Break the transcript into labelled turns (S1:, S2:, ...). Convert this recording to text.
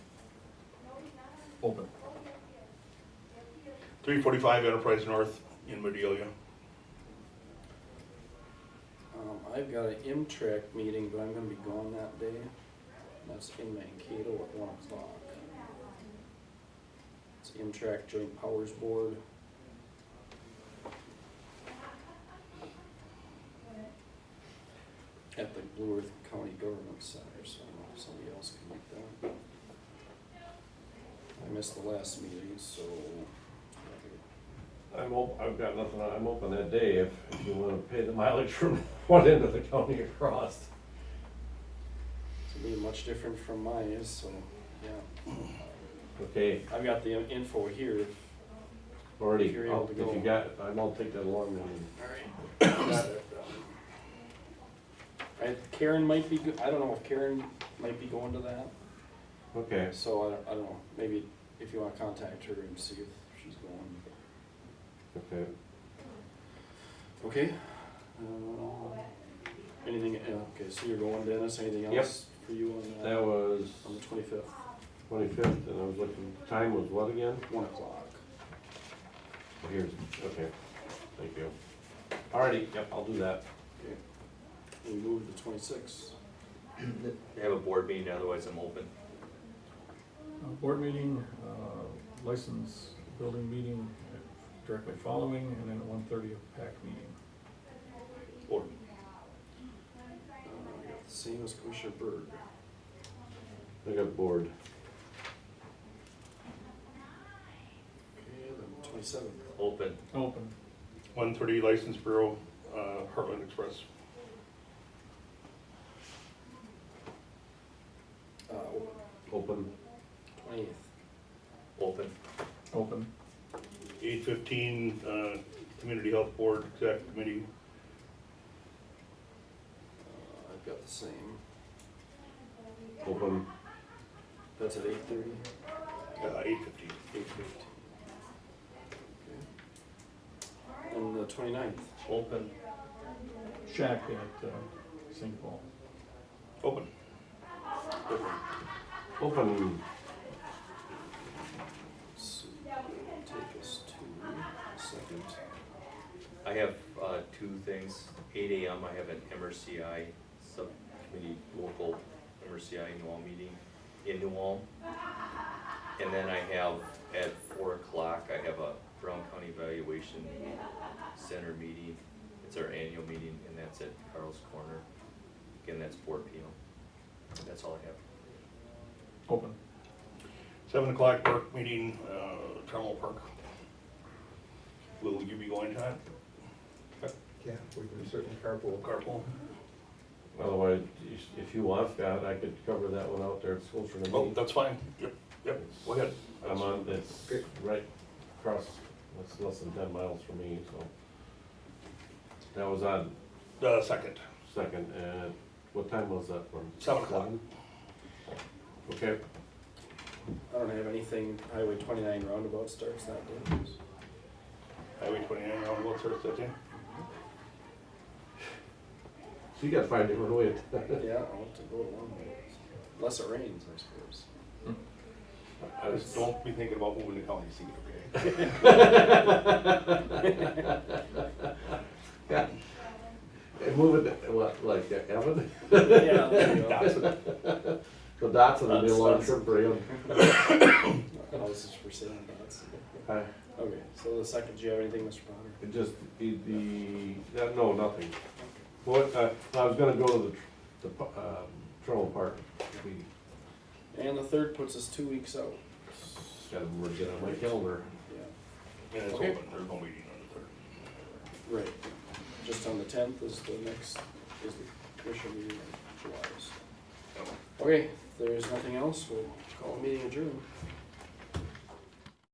S1: open.
S2: Three forty-five Enterprise North in Medelia.
S3: Um, I've got an M-Track meeting, but I'm gonna be gone that day. That's in Mankato at one o'clock. It's M-Track Joint Powers Board. At the Blue Earth County Government Center, so I don't know if somebody else can make that. I missed the last meeting, so
S4: I'm op, I've got nothing, on- I'm open that day if, if you wanna pay the mileage from one end of the county across.
S3: it'll be much different from mine, so, yeah.
S4: Okay,
S3: I've got the info here.
S4: already,
S3: If you're
S4: I'll-
S3: able to
S4: if you
S3: go.
S4: got, it, I won't take that long, then.
S3: Alright, Karen might be, go- I don't know if Karen might be going to that,
S4: okay.
S3: so I don't, I don't know, maybe if you wanna contact her and see if she's going.
S4: Okay,
S3: Okay. Um, Anything, yeah, okay, so you're going Dennis, anything
S4: Yep.
S3: else for you on,
S4: that
S3: uh,
S4: was
S3: on the twenty-fifth,
S4: twenty-fifth, and I was looking, time was what again?
S3: one o'clock?
S4: Oh, Here's, okay, thank you. Alrighty, yep, I'll do that.
S3: Okay. We move to twenty-sixth.
S5: They have a board meeting, otherwise I'm open.
S1: Uh, Board meeting, uh, license building meeting directly following, and then at one thirty a PAC meeting.
S5: Or
S3: Uh, I got the same as Commissioner Berg.
S4: I got bored.
S3: Okay, then twenty-seventh.
S5: open.
S1: Open.
S2: One thirty License Bureau, uh, Heartland Express.
S3: Uh,
S4: Open,
S3: twenty-eighth.
S5: Open.
S1: Open.
S2: Eight fifteen, uh, Community Health Board Exec Committee.
S3: Uh, I've got the same.
S4: open,
S3: That's at eight thirty?
S2: Uh, eight fifteen.
S3: Eight fifteen. On the twenty-ninth,
S5: Open.
S1: Shack at, uh, St. Paul.
S2: Open.
S4: open.
S3: so take us to second.
S5: I have, uh, two things. Eight AM, I have an MRCI subcommittee, local MRCI New Ulm meeting in New Ulm. And then I have, at four o'clock, I have a Brown County Evaluation Center meeting. It's our annual meeting, and that's at Carl's Corner. Again, that's four PM. That's all I have.
S1: Open.
S2: Seven o'clock Park meeting, uh, Trammell Park. Will you be going, Todd?
S6: Yeah, we can certainly carpool.
S2: Carpool?
S4: Otherwise, if- if you want, Scott, I could cover that one out there at school for the
S2: Oh,
S4: meeting.
S2: that's fine. Yep, yep, go ahead.
S4: I'm on, that's
S6: Good.
S4: right across, that's less than ten miles from me, so. That was on
S2: Uh, second.
S4: second, and what time was that one?
S2: Seven o'clock.
S4: Okay,
S3: I don't have anything, Highway twenty-nine roundabout starts that day.
S2: Highway twenty-nine, I'll go through it, yeah.
S4: so you gotta find a different way. to-
S3: Yeah, I'll have to go along with it, unless it rains, I suppose.
S4: I
S2: Just
S4: was-
S2: don't be thinking about moving to county seat, okay?
S4: Yeah. And move it, what, like uh, Evan?
S3: Yeah, there you go.
S2: Dotson.
S4: The Datsun would be a long trip
S3: Datsun.
S4: for him.
S3: Houses for sale and lots.
S4: Uh,
S3: Okay, so the second, do you have anything, Mr. Potter?
S4: It just, the, the, uh, no, nothing. What, uh, I was gonna go to the, tr- the, pu- um, Trumbull Park meeting.
S3: And the third puts us two weeks out,
S4: Gotta work it on my calendar.
S3: yeah.
S2: And it's
S3: Okay.
S2: open, there's no meeting on the third.
S3: Right, just on the tenth is the next, is the commission meeting in July. so. Okay, if there's nothing else, we'll call the meeting adjourned.